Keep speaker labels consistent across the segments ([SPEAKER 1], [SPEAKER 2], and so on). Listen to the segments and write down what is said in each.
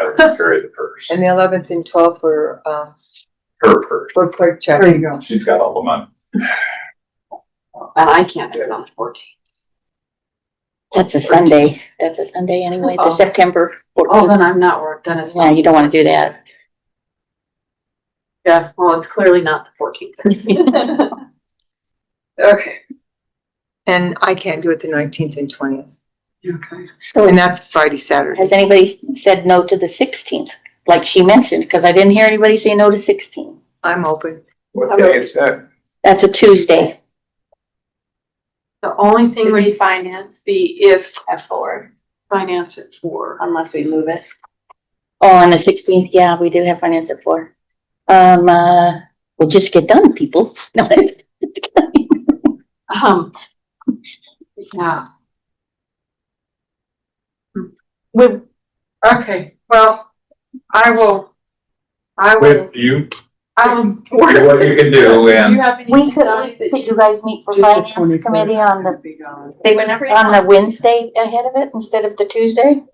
[SPEAKER 1] I would just carry the purse,
[SPEAKER 2] And the eleventh and twelfth were, uh,
[SPEAKER 1] her purse.
[SPEAKER 2] were quick check.
[SPEAKER 3] There you go.
[SPEAKER 1] She's got all the money.
[SPEAKER 4] And Uh, I can't do it on the fourteenth.
[SPEAKER 5] That's a Sunday. That's a Sunday anyway,
[SPEAKER 4] Uh-oh.
[SPEAKER 5] the September.
[SPEAKER 4] Oh,
[SPEAKER 5] 14th.
[SPEAKER 4] then I'm not work, then it's.
[SPEAKER 5] Yeah, you don't wanna do that.
[SPEAKER 4] Yeah, well, it's clearly not the fourteenth. Okay.
[SPEAKER 2] And I can't do it the nineteenth and twentieth.
[SPEAKER 4] Okay.
[SPEAKER 2] And
[SPEAKER 5] So
[SPEAKER 2] that's Friday, Saturday.
[SPEAKER 5] has anybody s- said no to the sixteenth? Like she mentioned, cause I didn't hear anybody say no to sixteen.
[SPEAKER 2] I'm open.
[SPEAKER 1] What day is that?
[SPEAKER 5] That's a Tuesday.
[SPEAKER 4] The only thing
[SPEAKER 6] Would
[SPEAKER 4] would
[SPEAKER 6] be finance
[SPEAKER 4] be if
[SPEAKER 6] at four,
[SPEAKER 4] finance it for,
[SPEAKER 6] unless we move it.
[SPEAKER 5] Oh, on the sixteenth, yeah, we do have finance at four. Um, uh, we'll just get done, people. No,
[SPEAKER 4] um, yeah.
[SPEAKER 3] Would,
[SPEAKER 4] Hmm. Okay, well, I will, I will,
[SPEAKER 1] With you,
[SPEAKER 4] I will.
[SPEAKER 1] do what you can do
[SPEAKER 4] Do you
[SPEAKER 1] and
[SPEAKER 4] have any?
[SPEAKER 5] We could, could you guys meet for finance committee on the,
[SPEAKER 6] Whenever you
[SPEAKER 5] on the
[SPEAKER 6] want.
[SPEAKER 5] Wednesday ahead of it instead of the Tuesday?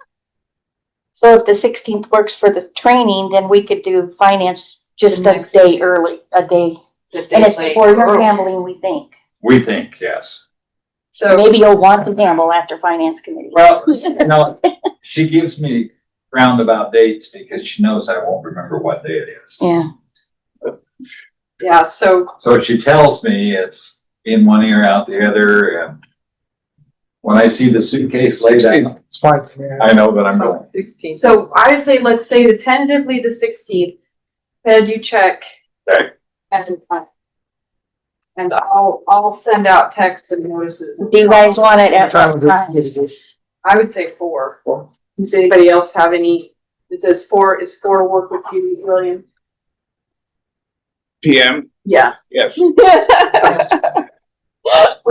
[SPEAKER 5] So if the sixteenth works for the training, then we could do finance just
[SPEAKER 4] The
[SPEAKER 5] a
[SPEAKER 4] next
[SPEAKER 5] day early, a day. And it's before
[SPEAKER 4] Oh.
[SPEAKER 5] your gambling, we think.
[SPEAKER 1] we think, yes.
[SPEAKER 4] So,
[SPEAKER 5] Maybe you'll want to gamble after finance committee.
[SPEAKER 1] Well, you know, she gives me roundabout dates because she knows I won't remember what day it is.
[SPEAKER 5] Yeah,
[SPEAKER 4] yeah, so
[SPEAKER 1] So she tells me it's in one ear, out the other, and when I see the suitcase laid out,
[SPEAKER 7] It's fine for me.
[SPEAKER 1] I know that I'm going.
[SPEAKER 2] Sixteenth.
[SPEAKER 4] So I would say, let's say the tentatively the sixteenth, Ted, you check.
[SPEAKER 1] Okay.
[SPEAKER 4] And, uh, and I'll, I'll send out texts and notices.
[SPEAKER 5] do you guys want it
[SPEAKER 7] What
[SPEAKER 5] at
[SPEAKER 7] time
[SPEAKER 5] what
[SPEAKER 7] is it?
[SPEAKER 5] time?
[SPEAKER 7] Is this-
[SPEAKER 4] I would say four. Does anybody else have any, does four, is four work with you, William?
[SPEAKER 8] PM,
[SPEAKER 4] Yeah.
[SPEAKER 8] yes.
[SPEAKER 5] Would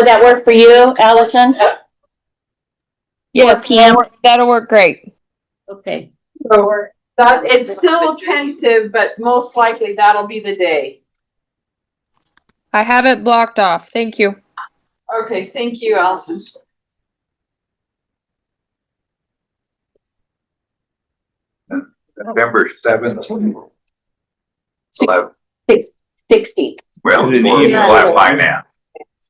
[SPEAKER 5] that work for you, Allison? Four
[SPEAKER 9] Yes,
[SPEAKER 5] PM?
[SPEAKER 9] that'll work great.
[SPEAKER 5] Okay.
[SPEAKER 4] So that, it's still tentative, but most likely that'll be the day.
[SPEAKER 9] I have it blocked off. Thank you.
[SPEAKER 4] Okay, thank you, Allison. Oh.
[SPEAKER 1] November seventh. Well,
[SPEAKER 5] Sixteenth,
[SPEAKER 8] Well,
[SPEAKER 1] we'll
[SPEAKER 8] we'll
[SPEAKER 1] have finance.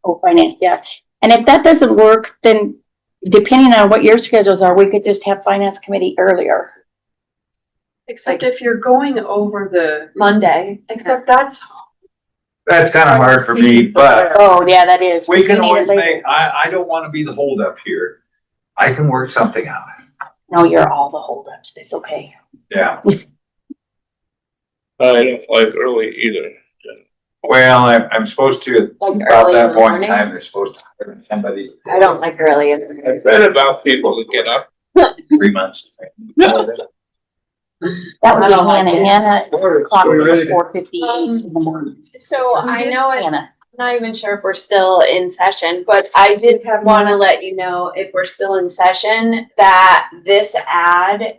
[SPEAKER 5] oh, finance, yeah. And if that doesn't work, then depending on what your schedules are, we could just have finance committee earlier.
[SPEAKER 4] Except if you're going over the,
[SPEAKER 6] Monday.
[SPEAKER 4] except that's,
[SPEAKER 1] That's kind of hard for me, but
[SPEAKER 5] Oh, yeah, that is.
[SPEAKER 1] we can
[SPEAKER 5] need it
[SPEAKER 1] always
[SPEAKER 5] later.
[SPEAKER 1] make, I, I don't want to be the holdup here. I can work something out.
[SPEAKER 5] No, you're all the holdups, it's okay.
[SPEAKER 1] Yeah.
[SPEAKER 8] I don't like early either.
[SPEAKER 1] Well, I'm, I'm supposed to,
[SPEAKER 5] Like
[SPEAKER 1] about
[SPEAKER 5] early in
[SPEAKER 1] that
[SPEAKER 5] the
[SPEAKER 1] point in
[SPEAKER 5] morning.
[SPEAKER 1] time, they're supposed to hire somebody.
[SPEAKER 5] I don't like early in the morning.
[SPEAKER 8] I've read about people that get up
[SPEAKER 1] Three months.
[SPEAKER 5] That would
[SPEAKER 4] I
[SPEAKER 5] be
[SPEAKER 4] don't like it.
[SPEAKER 5] Hannah, Hannah, clock
[SPEAKER 7] Are we ready
[SPEAKER 5] was
[SPEAKER 7] to-
[SPEAKER 5] four fifty-eight in the morning.
[SPEAKER 6] So I know it's
[SPEAKER 5] Hannah,
[SPEAKER 6] not even sure if we're still in session, but I did want to let you know if we're still in session that this ad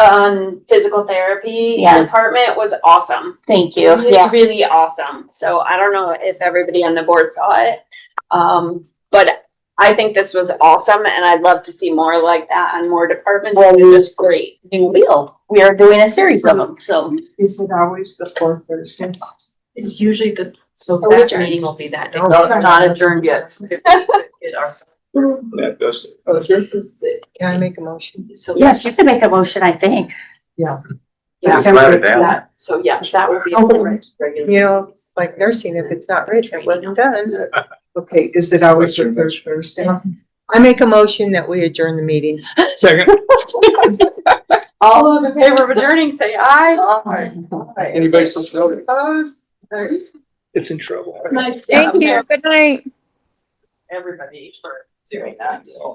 [SPEAKER 6] on physical therapy
[SPEAKER 5] Yeah.
[SPEAKER 6] department was awesome.
[SPEAKER 5] thank you, yeah.
[SPEAKER 6] Really awesome. So I don't know if everybody on the board saw it. Um, but I think this was awesome and I'd love to see more like that on more departments.
[SPEAKER 5] Well,
[SPEAKER 6] It was great.
[SPEAKER 5] You will, we are doing a series of them, so.
[SPEAKER 3] Is it always the fourth Thursday?
[SPEAKER 4] it's usually the, so
[SPEAKER 6] Oh,
[SPEAKER 4] that
[SPEAKER 6] adjourn.
[SPEAKER 4] meeting will be that day.
[SPEAKER 3] No,
[SPEAKER 4] We're not adjourned yet.
[SPEAKER 8] that does it.
[SPEAKER 2] Oh, this is the, can I make a motion?
[SPEAKER 4] So-
[SPEAKER 5] Yes, you should make a motion, I think.
[SPEAKER 4] Yeah.
[SPEAKER 1] Just write it down.
[SPEAKER 4] That- So, yeah, that would be.
[SPEAKER 3] Oh.
[SPEAKER 4] regular.
[SPEAKER 2] You know, it's like nursing, if it's not rich, it wasn't done.
[SPEAKER 3] Okay, is it always the third Thursday?
[SPEAKER 2] I make a motion that we adjourn the meeting.
[SPEAKER 7] Second,
[SPEAKER 4] All those in favor of adjourning, say aye.
[SPEAKER 7] anybody still snoring?
[SPEAKER 4] Opposed? Or-
[SPEAKER 7] It's in trouble.
[SPEAKER 4] Nice job,
[SPEAKER 9] Thank you. Good night.
[SPEAKER 4] everybody, for doing that.